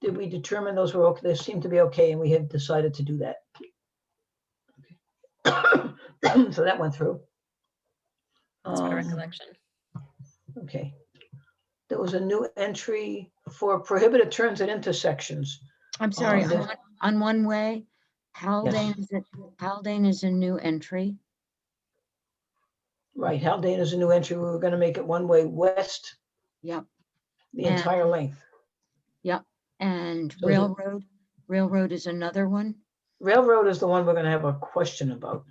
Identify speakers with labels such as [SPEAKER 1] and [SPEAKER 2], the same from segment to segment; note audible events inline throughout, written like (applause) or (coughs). [SPEAKER 1] did we determine those were okay, they seemed to be okay, and we have decided to do that. (coughs) So that went through.
[SPEAKER 2] That's my
[SPEAKER 1] Um,
[SPEAKER 2] recollection.
[SPEAKER 1] Okay. There was a new entry for prohibited turns at intersections.
[SPEAKER 3] I'm sorry,
[SPEAKER 1] Um,
[SPEAKER 3] on one- on one way, Haldane, is a- Haldane is a new entry.
[SPEAKER 1] Right, Haldane is a new entry. We were gonna make it one-way west,
[SPEAKER 3] Yep.
[SPEAKER 1] the
[SPEAKER 3] Yeah.
[SPEAKER 1] entire length.
[SPEAKER 3] And
[SPEAKER 1] So the-
[SPEAKER 3] Railroad, Railroad is another one.
[SPEAKER 1] Railroad is the one we're gonna have a question about.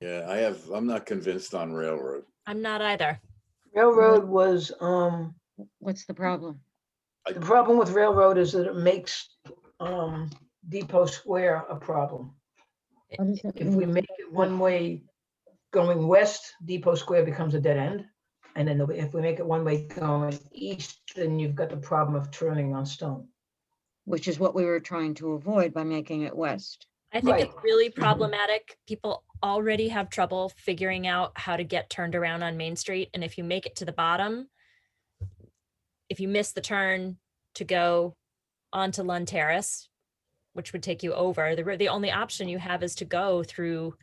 [SPEAKER 4] Yeah, I have, I'm not convinced on railroad.
[SPEAKER 2] I'm not either.
[SPEAKER 1] Railroad was, um,
[SPEAKER 3] What's the problem?
[SPEAKER 1] the problem with railroad is that it makes, um, Depot Square a problem.
[SPEAKER 3] What does it
[SPEAKER 1] If we
[SPEAKER 3] mean?
[SPEAKER 1] make it one way going west, Depot Square becomes a dead end. And then the- if we make it one way going east, then you've got the problem of turning on Stone.
[SPEAKER 3] Which is what we were trying to avoid by making it west.
[SPEAKER 2] I think
[SPEAKER 1] Right.
[SPEAKER 2] it's really
[SPEAKER 3] Mm-hmm.
[SPEAKER 2] problematic. People already have trouble figuring out how to get turned around on Main Street. And if you make it to the bottom, if you miss the turn to go onto Lund Terrace, which would take you over, the, re- the only option you have is to go through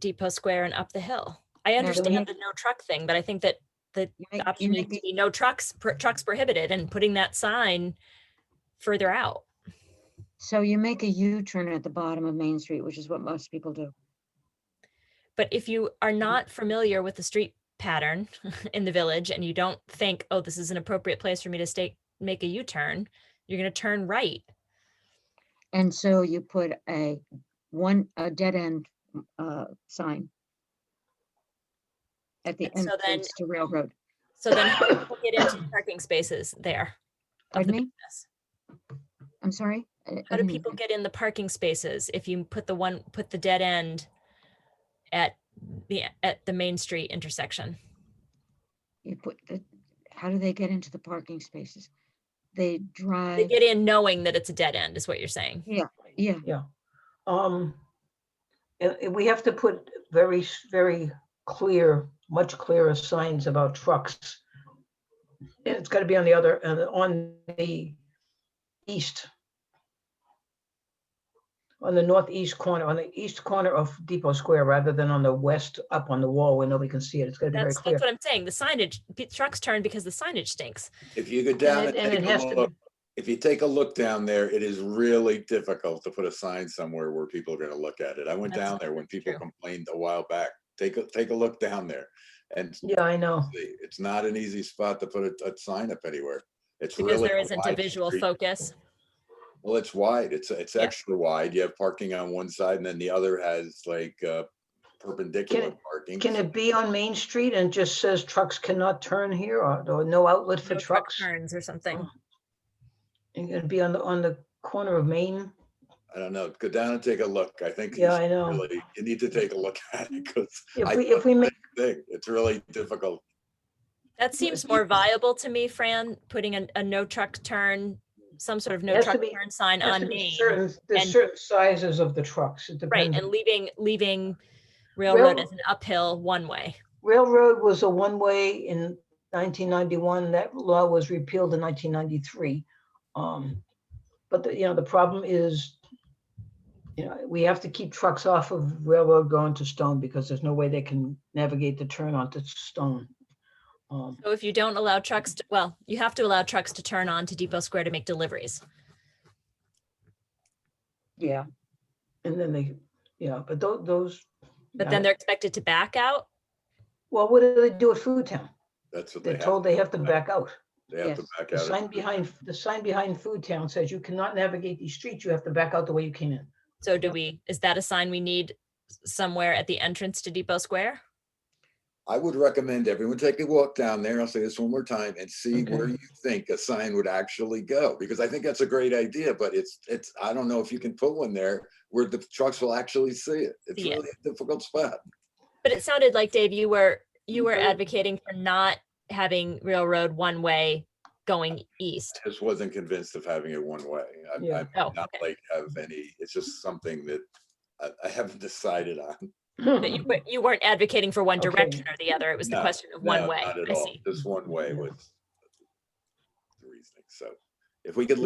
[SPEAKER 2] Depot Square and up the hill. I
[SPEAKER 3] but
[SPEAKER 2] understand
[SPEAKER 3] you-
[SPEAKER 2] the no truck thing, but I think that
[SPEAKER 3] You
[SPEAKER 2] the
[SPEAKER 3] make- you
[SPEAKER 2] option needs
[SPEAKER 3] make
[SPEAKER 2] to
[SPEAKER 3] it-
[SPEAKER 2] be no trucks, pr- trucks prohibited and putting that sign further out.
[SPEAKER 3] So you make a U-turn at the bottom of Main Street, which is what most people do.
[SPEAKER 2] But if you
[SPEAKER 1] Mm-hmm.
[SPEAKER 2] are not familiar with the street pattern (laughs) in the village and you don't think, oh, this is an appropriate place for me to stay, make a U-turn, you're gonna turn right.
[SPEAKER 3] And so you put a one, a dead end uh, sign at the
[SPEAKER 2] And so then-
[SPEAKER 3] entrance to Railroad.
[SPEAKER 2] So then how do people get
[SPEAKER 1] (coughs)
[SPEAKER 2] into the parking spaces there? of
[SPEAKER 3] Pardon
[SPEAKER 2] the
[SPEAKER 3] me?
[SPEAKER 2] business?
[SPEAKER 3] I'm sorry? I-
[SPEAKER 2] How
[SPEAKER 3] I
[SPEAKER 2] do
[SPEAKER 3] didn't hear
[SPEAKER 2] people
[SPEAKER 3] you.
[SPEAKER 2] get in the parking spaces if you put the one, put the dead end at the, at the Main Street intersection?
[SPEAKER 3] You put the, how do they get into the parking spaces? They
[SPEAKER 2] They
[SPEAKER 3] drive,
[SPEAKER 2] get in knowing that it's a dead end is what you're saying.
[SPEAKER 3] yeah,
[SPEAKER 1] Yeah. Um, and- and we have to put very, s- very clear, much clearer signs about trucks. And it's gotta be on the other, uh, on the east. On the northeast corner, on the east corner of Depot Square, rather than on the west up on the wall where nobody can see it. It's gotta be very
[SPEAKER 2] That's,
[SPEAKER 1] clear.
[SPEAKER 2] that's what I'm saying. The signage, pe- trucks turn because the signage stinks.
[SPEAKER 4] If you go
[SPEAKER 1] And
[SPEAKER 4] down and
[SPEAKER 1] it- and it
[SPEAKER 4] take
[SPEAKER 1] has
[SPEAKER 4] a
[SPEAKER 1] to,
[SPEAKER 4] look,
[SPEAKER 1] be-
[SPEAKER 4] if you take a look down there, it is really difficult to put a sign somewhere where people are gonna look at it. I went
[SPEAKER 2] That's
[SPEAKER 4] down there when people
[SPEAKER 2] true.
[SPEAKER 4] complained a while back. Take a, take a look down there. And see,
[SPEAKER 1] yeah, I know.
[SPEAKER 4] it's not an easy spot to put a, a sign up anywhere. It's
[SPEAKER 2] Because
[SPEAKER 4] really.
[SPEAKER 2] there isn't a
[SPEAKER 4] wide
[SPEAKER 2] visual
[SPEAKER 4] street.
[SPEAKER 2] focus.
[SPEAKER 4] Well, it's wide. It's, it's
[SPEAKER 2] Yeah.
[SPEAKER 4] extra wide. You have parking on one side and then the other has like uh, perpendicular
[SPEAKER 1] it-
[SPEAKER 4] parking.
[SPEAKER 1] Can it be on Main Street and just says trucks cannot turn here or, or no outlet for
[SPEAKER 2] no truck
[SPEAKER 1] trucks?
[SPEAKER 2] Turns or something.
[SPEAKER 1] Oh. And it'd be on the, on the corner of Main?
[SPEAKER 4] I don't know. Go down and take a look. I think.
[SPEAKER 1] Yeah,
[SPEAKER 4] it's
[SPEAKER 1] I know.
[SPEAKER 4] really- You need to take a look (laughs) at it because I
[SPEAKER 1] If we,
[SPEAKER 4] thought
[SPEAKER 1] if we make,
[SPEAKER 4] it's really difficult.
[SPEAKER 2] That seems more viable to me, Fran, putting a, a no truck turn, some sort of no
[SPEAKER 1] Has to
[SPEAKER 2] truck
[SPEAKER 1] be-
[SPEAKER 2] turn sign
[SPEAKER 1] there's
[SPEAKER 2] on
[SPEAKER 1] to be
[SPEAKER 2] Main.
[SPEAKER 1] certain, there's
[SPEAKER 2] and-
[SPEAKER 1] certain sizes of the trucks. It
[SPEAKER 2] Right,
[SPEAKER 1] depends.
[SPEAKER 2] and leaving, leaving railroad as
[SPEAKER 1] Railroad.
[SPEAKER 2] an uphill one way.
[SPEAKER 1] Railroad was a one-way in nineteen ninety-one. That law was repealed in nineteen ninety-three. Um, but the, you know, the problem is, you know, we have to keep trucks off of railroad going to Stone because there's no way they can navigate the turn onto Stone. Um,
[SPEAKER 2] So if you don't allow trucks, to well, you have to allow trucks to turn on to Depot Square to make deliveries.
[SPEAKER 3] yeah.
[SPEAKER 1] and then they, yeah, but tho- those.
[SPEAKER 2] But then
[SPEAKER 1] yeah.
[SPEAKER 2] they're expected to back out.
[SPEAKER 1] Well, what do they do at Food Town?
[SPEAKER 4] That's what they
[SPEAKER 1] They're
[SPEAKER 4] have.
[SPEAKER 1] told they have to back out.
[SPEAKER 4] They have to
[SPEAKER 3] Yes.
[SPEAKER 4] back
[SPEAKER 1] The
[SPEAKER 4] out.
[SPEAKER 1] sign
[SPEAKER 4] of-
[SPEAKER 1] behind, the sign behind Food Town says you cannot navigate these streets. You have to back out the way you came in.
[SPEAKER 2] So do we, is that a sign we need somewhere at the entrance to Depot Square?
[SPEAKER 4] I would recommend everyone take a walk down there. I'll say this one more time and see
[SPEAKER 1] Okay.
[SPEAKER 4] where you think a sign would actually go. Because I think that's a great idea, but it's, it's, I don't know if you can put one there where the trucks will actually see it. It's
[SPEAKER 2] See it.
[SPEAKER 4] really a difficult spot.
[SPEAKER 2] But it sounded like Dave, you were, you were
[SPEAKER 1] Mhm.
[SPEAKER 2] advocating for not having railroad one way going east.
[SPEAKER 4] just wasn't convinced of having it one way. I-
[SPEAKER 1] Yeah.
[SPEAKER 4] I'm
[SPEAKER 2] Oh,
[SPEAKER 4] not
[SPEAKER 2] okay.
[SPEAKER 4] like have any, it's just something that I, I haven't decided on.
[SPEAKER 2] But (laughs) you, but you weren't advocating for one
[SPEAKER 1] Okay.
[SPEAKER 2] direction or the other. It was the
[SPEAKER 4] No,
[SPEAKER 2] question of
[SPEAKER 4] No,
[SPEAKER 2] one way.
[SPEAKER 4] Not at
[SPEAKER 2] I
[SPEAKER 4] all.
[SPEAKER 2] see.
[SPEAKER 4] Just one way
[SPEAKER 1] Yeah.
[SPEAKER 4] was the reasoning. So if we could